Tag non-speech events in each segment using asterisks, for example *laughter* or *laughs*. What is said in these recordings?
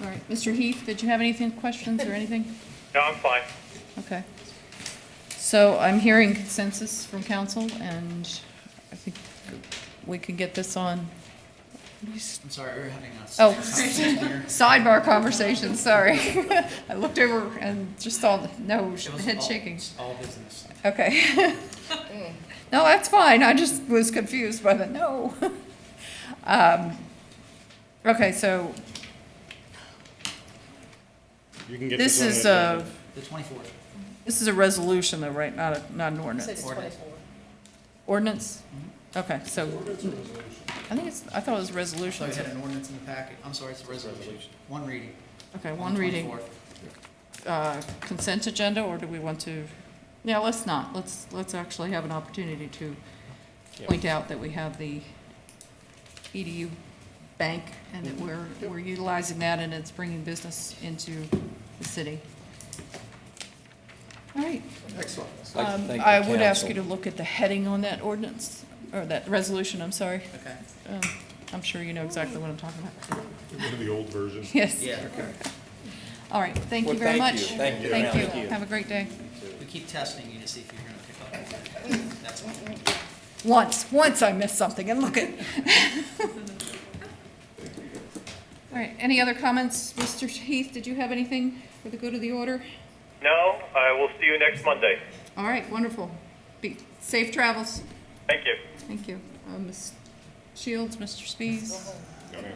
right. Mr. Heath, did you have anything, questions or anything? No, I'm fine. Okay. So I'm hearing consensus from council, and I think we could get this on I'm sorry, we were having us. Oh, *laughs* sidebar conversation, sorry. *laughs* I looked over and just saw, no, head shaking. All business. Okay. *laughs* No, that's fine, I just was confused by the no. *laughs* Um, Okay, so You can get this this on is the agenda. a, The twenty-fourth. this is a resolution though, right, not, a not an So it's ordinance? Ordinance. 24. Ordinance? Okay, so, I think it's, I thought it was a resolution. Sorry, we so- had an ordinance in the packet. I'm sorry, it's a resolution. One reading. Okay, on one the reading. 24th. uh, consent agenda, or do we want to, yeah, let's not, let's, let's actually have an opportunity to Yeah. point out that we have the EDU bank, and that we're, we're utilizing that, and it's bringing business into the city. All right, Excellent. I'd like to um, thank the I would ask you to council. look at the heading on that ordinance, or that resolution, I'm sorry. Okay, Um, I'm sure you know exactly what I'm talking about. *laughs* One of the old versions. Yes, yeah. all right, thank you Well, very thank much. you. Thank you. Thank Thank you, you. have a great day. We keep testing you to see if you're gonna pick up. That's all. Once, once I missed something, and look at. *laughs* All right, any other comments? Mr. Heath, did you have anything for the good of the order? No, I will see you next Monday. All right, wonderful. Be, safe travels. Thank you. Thank you. Uh, Ms. Shields, Mr. Spees? No, ma'am.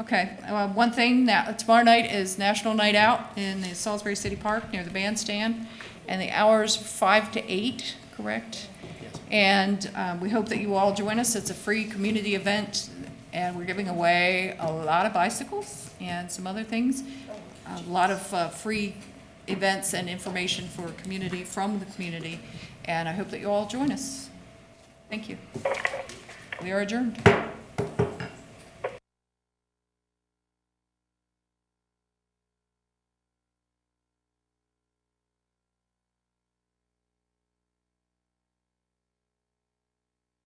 Okay, uh, one thing, now, tomorrow night is National Night Out in the Salisbury City Park near the bandstand, and the hour's five to eight, correct? And um, we hope that you all join us, it's a free community event, and we're giving away a lot of bicycles and some other things. A lot of uh, free events and information for community, from the community, and I hope that you all join us. Thank you. We are adjourned.